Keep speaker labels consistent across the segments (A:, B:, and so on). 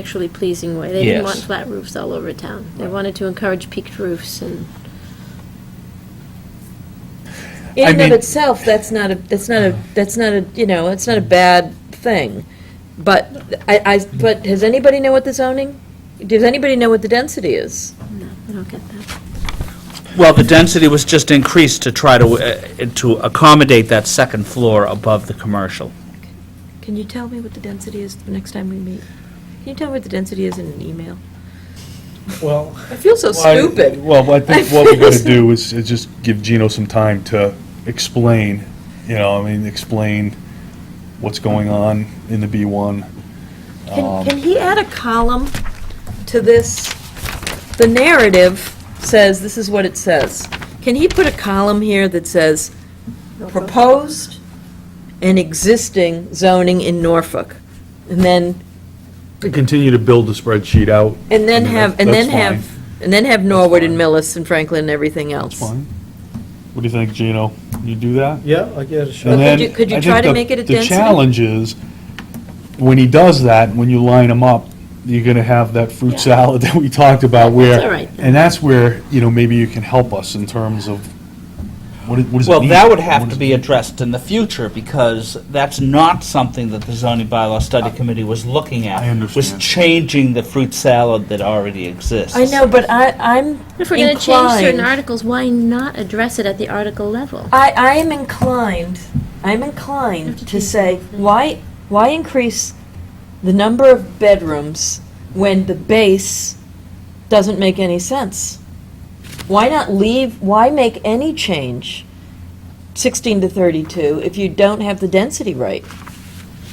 A: actually pleasing way. They didn't
B: Yes.
A: want flat roofs all over town. They wanted to encourage peaked roofs and,
C: In and
B: mean-
C: of itself, that's not a, that's not a, that's not a, you know, it's not a bad thing. But I, I, but does anybody know what the zoning, does anybody know what the density is?
A: no, I don't get that.
B: Well, the density was just increased to try to, uh, to accommodate that second floor above the commercial.
C: Can you tell me what the density is the next time we meet? Can you tell me what the density is in an email?
D: Well.
C: I feel so stupid.
D: Well, I think what
C: I
D: we're
C: feel
D: gonna
C: so-
D: do is, is just give Gino some time to explain, you know, I mean, explain what's going on in the B one. Um,
C: Can, can he add a column to this? The narrative says, this is what it says. Can he put a column here that says, proposed and existing zoning in Norfolk? And then,
D: Continue to build the spreadsheet out.
C: and then
D: I mean,
C: have,
D: that-
C: and then
D: that's fine.
C: have, and then have Norwood and
D: fine.
C: Millis and Franklin and everything else.
D: That's fine. What do you think, Gino? You do that?
E: Yeah, I get a shot.
C: But could
D: And then,
C: you- could you
D: I think
C: try to
D: the-
C: make it a
D: The
C: density?
D: challenge is, when he does that, when you line them up, you're gonna have that
A: Yeah.
D: fruit salad that we talked about where.
A: all right then.
D: And that's where, you know, maybe you can help us in terms of, what it- what does it
B: Well,
D: mean?
B: that would
D: What
B: have to
D: does-
B: be addressed in the future, because that's not something that the zoning bylaw study committee was looking at.
D: I understand.
B: Was changing the fruit salad that already exists.
C: I know, but I, I'm
A: If we're going to change certain
C: inclined-
A: articles, why not address it at the article level?
C: I, I am inclined, I'm
A: Have to
C: inclined to
A: change the
C: say,
A: whole thing.
C: why, why increase the number of bedrooms when the base doesn't make any sense? Why not leave, why make any change, 16 to 32, if you don't have the density right?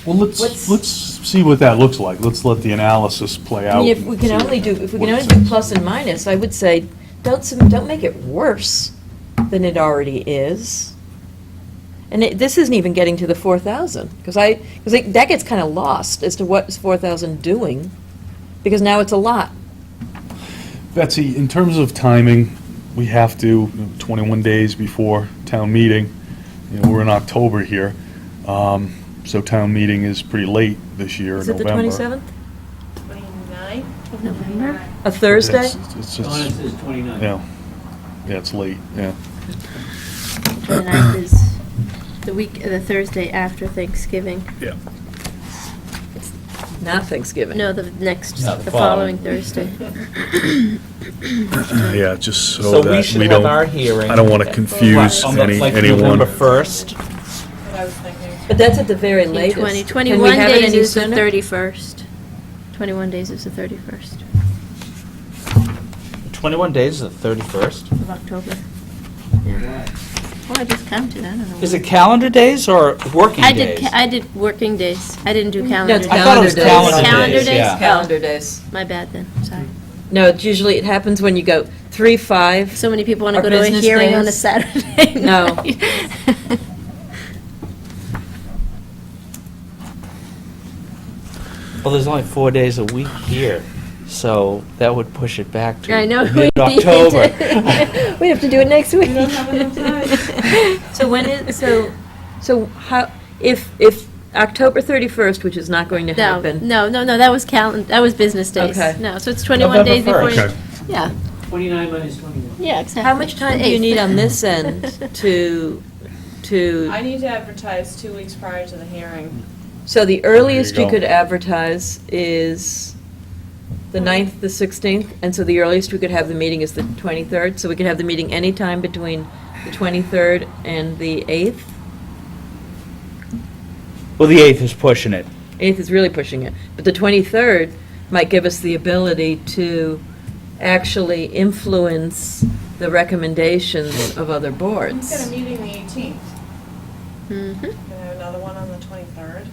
D: Well, let's,
C: what's-
D: let's see what that looks like. Let's let the analysis play
C: I
D: out.
C: mean, if
D: and
C: we can
D: see what-
C: only do, if we
D: what
C: can
D: it
C: only do
D: says.
C: plus and minus, I would say, don't, sub- don't make it worse than it already is. And it- this isn't even getting to the 4,000, because I, because that gets kind of lost as to what is 4,000 doing, because now it's a lot.
D: Betsy, in terms of timing, we have to, you know, 21 days before town meeting, you know, we're in October here, um, so town meeting is pretty late this year in
C: Is it
D: November.
C: the 27th?
F: 29th?
A: Of November?
C: A Thursday?
D: It's- It's,
E: Donna
D: it's,
E: says 29.
D: yeah, yeah, it's late, yeah.
A: Tonight is the week, the Thursday after Thanksgiving.
C: Not Thanksgiving.
A: No, the next,
B: No, the
A: the
B: following.
A: following Thursday.
D: Yeah, just
B: So we should have our hearing.
D: wanna
F: confuse
B: on the- like November 1st.
F: What I was thinking.
C: But that's at the very
A: Twenty-
C: latest. Can we
A: 21
C: have it
A: days
C: any
A: is the
C: sooner?
A: 31st. 21 days is the 31st
B: 21 days, the 31st.
A: of October. Well, I just counted, I don't know.
B: Is it calendar days or working
A: I
B: days?
A: did, ca- I did working days. I didn't do
C: No,
A: calendar
C: it's
A: days.
B: I thought it
C: calendar
B: was
C: days.
B: calendar days,
A: Calendar days?
B: yeah.
C: Calendar days.
A: My bad then, sorry.
C: No, it's usually, it happens when you go 3, 5,
A: So many people want
C: Or
A: to go to a
C: business
A: hearing on a
C: days?
A: Saturday
C: No.
A: night.
B: Well, there's only four days a week here, so that would push it back to
A: I know. we need to-
B: mid-October.
A: We have to do it next week.
F: don't have enough time.
C: So when is, so, so how, if, if October 31st, which is not going to
A: No,
C: happen,
A: no, no, no, that was calendar, that was business days.
C: Okay.
A: No, so it's 21
B: November
A: days before. you-
D: Okay.
A: Yeah,
E: 29 minus 21.
A: yeah, exactly.
C: how much time do you
A: Eighth.
C: need on this end to,
F: I
C: to,
F: need to advertise two weeks prior to the hearing.
C: so the earliest
D: There you
C: you
D: go.
C: could advertise is the 9th, the 16th, and so the earliest we could have the meeting is the 23rd, so we could have the meeting anytime between the 23rd and the 8th?
B: Well, the 8th is pushing it.
C: 8th is really pushing it, but the 23rd might give us the ability to actually influence the recommendations of other
F: We've got a
C: boards.
F: meeting the 18th.
A: Mhm.
F: We're gonna have another one on the 23rd.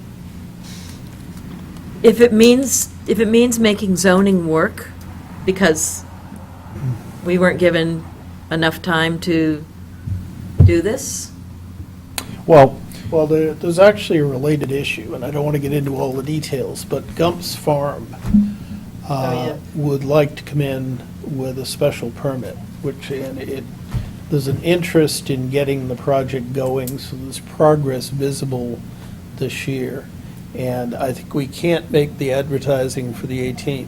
C: If it means, if it means making zoning work, because we weren't given enough time to do this,
D: Well,
E: Well, there, there's actually a related issue, and I don't want to get into all the details, but Gump's Farm
F: Oh, yeah.
E: uh, would like to come in with a special permit, which, and it, there's an interest in getting the project going, so there's progress visible this year. And I think we can't make the advertising for the 18th.